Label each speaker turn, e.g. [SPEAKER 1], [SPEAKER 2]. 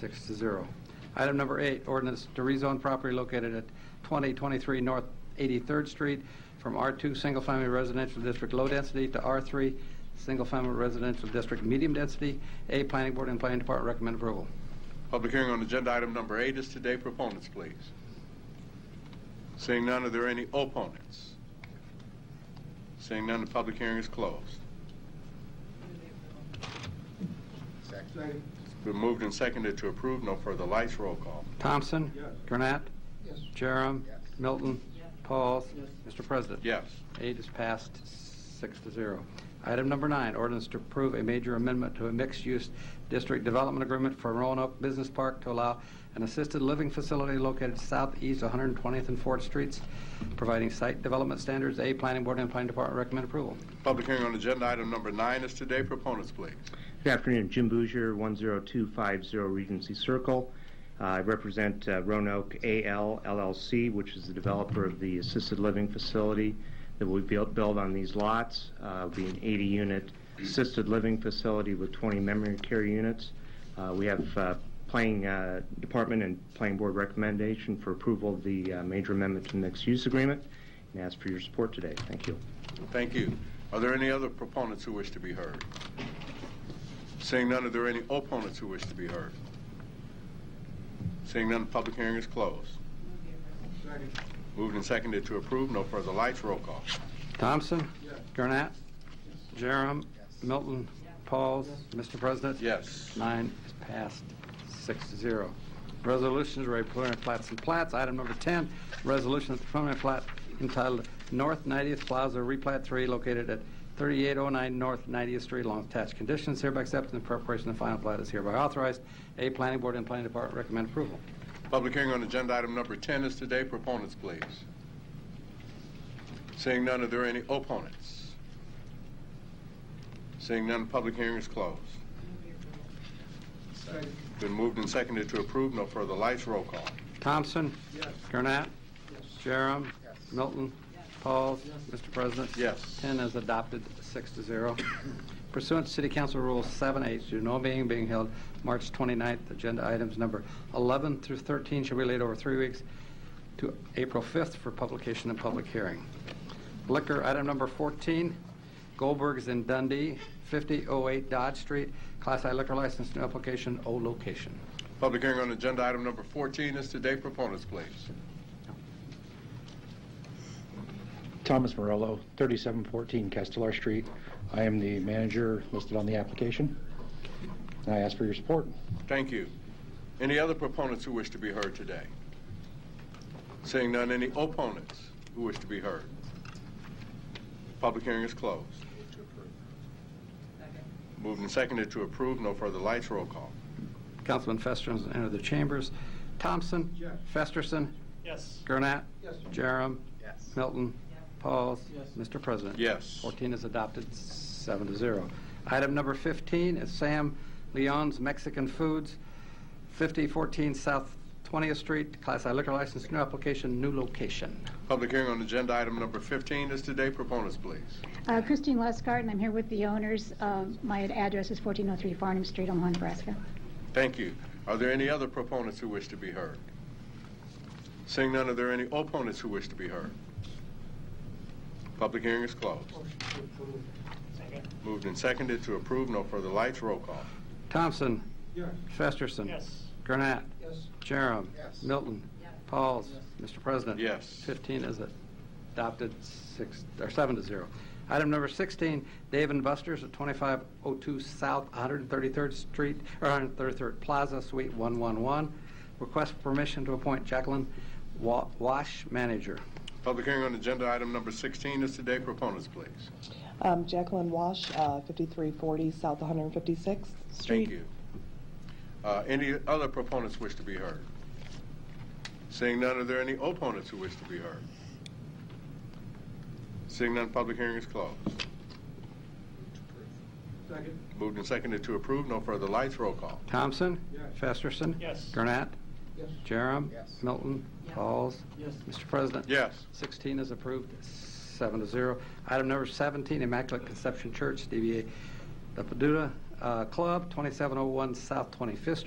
[SPEAKER 1] Six to zero. Item number eight, ordinance to rezone property located at 2023 North 83rd Street from R2 Single Family Residential District Low Density to R3 Single Family Residential District Medium Density. A, Planning Board and Planning Department recommend approval.
[SPEAKER 2] Public hearing on agenda item number eight is today. Proponents, please. Seeing none, are there any opponents? Seeing none, the public hearing is closed.
[SPEAKER 3] Second.
[SPEAKER 2] It's been moved and seconded to approve. No further lights. Roll call.
[SPEAKER 1] Thompson.
[SPEAKER 3] Yes.
[SPEAKER 1] Gurnett.
[SPEAKER 3] Yes.
[SPEAKER 1] Jerem.
[SPEAKER 3] Yes.
[SPEAKER 1] Milton. Pauls.
[SPEAKER 3] Yes.
[SPEAKER 1] Mr. President.
[SPEAKER 2] Yes.
[SPEAKER 1] Eight is passed six to zero. Item number nine, ordinance to approve a major amendment to a mixed-use district development agreement for Roanoke Business Park to allow an assisted living facility located southeast 120th and 4th Streets, providing site development standards. A, Planning Board and Planning Department recommend approval.
[SPEAKER 2] Public hearing on agenda item number nine is today. Proponents, please.
[SPEAKER 4] Good afternoon, Jim Bouger, 10250 Regency Circle. Uh, I represent uh, Roanoke AL LLC, which is the developer of the assisted living facility that we built build on these lots. Uh, It'll be an 80-unit assisted living facility with 20 memory care units. Uh, We have uh, planning uh, department and planning board recommendation for approval of the uh, major amendment to mixed use agreement, and ask for your support today. Thank you.
[SPEAKER 2] Thank you. Are there any other proponents who wish to be heard? Seeing none, are there any opponents who wish to be heard? Seeing none, the public hearing is closed.
[SPEAKER 3] Second.
[SPEAKER 2] Moved and seconded to approve. No further lights. Roll call.
[SPEAKER 1] Thompson?
[SPEAKER 3] Yes.
[SPEAKER 1] Gurnett? Jerem?
[SPEAKER 3] Yes.
[SPEAKER 1] Milton? Pauls? Mr. President?
[SPEAKER 2] Yes.
[SPEAKER 1] Nine is passed, six to zero. Resolutions, re preliminary plats and plats. Item number 10, resolution of the preliminary plat entitled North 90th Plaza Replat 3 located at 3809 North 90th Street along with attached conditions hereby accepted and preparation of final plat is hereby authorized. A, Planning Board and Planning Department recommend approval.
[SPEAKER 2] Public hearing on agenda item number 10 is today. Proponents, please. Seeing none, are there any opponents? Seeing none, public hearing is closed.
[SPEAKER 3] Second.
[SPEAKER 2] Been moved and seconded to approve. No further lights. Roll call.
[SPEAKER 1] Thompson?
[SPEAKER 3] Yes.
[SPEAKER 1] Gurnett?
[SPEAKER 3] Yes.
[SPEAKER 1] Jerem?
[SPEAKER 3] Yes.
[SPEAKER 1] Milton? Pauls? Mr. President?
[SPEAKER 2] Yes.
[SPEAKER 1] 10 is adopted, six to zero. Pursuant to City Council Rule 7H, due to no meeting being held March 29th, agenda items number 11 through 13 shall be laid over three weeks to April 5th for publication and public hearing. Liquor, item number 14, Goldberg's in Dundee, 5008 Dodge Street, Class I liquor license, new application, O location.
[SPEAKER 2] Public hearing on agenda item number 14 is today. Proponents, please.
[SPEAKER 5] Thomas Morello, 3714 Castellar Street. I am the manager listed on the application. And I ask for your support.
[SPEAKER 2] Thank you. Any other proponents who wish to be heard today? Seeing none, any opponents who wish to be heard? Public hearing is closed. Moved and seconded to approve. No further lights. Roll call.
[SPEAKER 1] Councilman Festerson entered the chambers. Thompson?
[SPEAKER 3] Yes.
[SPEAKER 1] Festerson?
[SPEAKER 6] Yes.
[SPEAKER 1] Gurnett?
[SPEAKER 3] Yes.
[SPEAKER 1] Jerem?
[SPEAKER 3] Yes.
[SPEAKER 1] Milton? Pauls?
[SPEAKER 3] Yes.
[SPEAKER 1] Mr. President?
[SPEAKER 2] Yes.
[SPEAKER 1] 14 is adopted, seven to zero. Item number 15 is Sam Leon's Mexican Foods, 5014 South 20th Street, Class I liquor license, new application, new location.
[SPEAKER 2] Public hearing on agenda item number 15 is today. Proponents, please.
[SPEAKER 7] Uh, Christine Leskart, and I'm here with the owners. Um, My address is 1403 Farnham Street, Omaha, Nebraska.
[SPEAKER 2] Thank you. Are there any other proponents who wish to be heard? Seeing none, are there any opponents who wish to be heard? Public hearing is closed.
[SPEAKER 6] Second.
[SPEAKER 2] Moved and seconded to approve. No further lights. Roll call.
[SPEAKER 1] Thompson,
[SPEAKER 3] Yes.
[SPEAKER 1] Festerson.
[SPEAKER 6] Yes.
[SPEAKER 1] Gurnett,
[SPEAKER 3] Yes.
[SPEAKER 1] Jerem.
[SPEAKER 3] Yes.
[SPEAKER 1] Milton. Pauls. Mr. President.
[SPEAKER 2] Yes.
[SPEAKER 1] 15 is adopted, six, or seven to zero. Item number 16, Dave and Buster's at 2502 South 133rd Street, or 133rd Plaza, Suite 111. Request for permission to appoint Jacqueline Wa- Wash, manager.
[SPEAKER 2] Public hearing on agenda item number 16 is today. Proponents, please.
[SPEAKER 8] Um, Jacqueline Wash, uh, 5340 South 156th Street.
[SPEAKER 2] Thank you. Uh, Any other proponents wish to be heard? Seeing none, are there any opponents who wish to be heard? Seeing none, public hearing is closed.
[SPEAKER 3] Second.
[SPEAKER 2] Moved and seconded to approve. No further lights. Roll call.
[SPEAKER 1] Thompson?
[SPEAKER 3] Yes.
[SPEAKER 1] Festerson?
[SPEAKER 6] Yes.
[SPEAKER 1] Gurnett?
[SPEAKER 3] Yes.
[SPEAKER 1] Jerem?
[SPEAKER 3] Yes.
[SPEAKER 1] Milton? Pauls?
[SPEAKER 3] Yes.
[SPEAKER 1] Mr. President?
[SPEAKER 2] Yes.
[SPEAKER 1] 16 is approved, seven to zero. Item number 17, Immaculate Conception Church, DBA The Paduta uh, Club, 2701 South 25th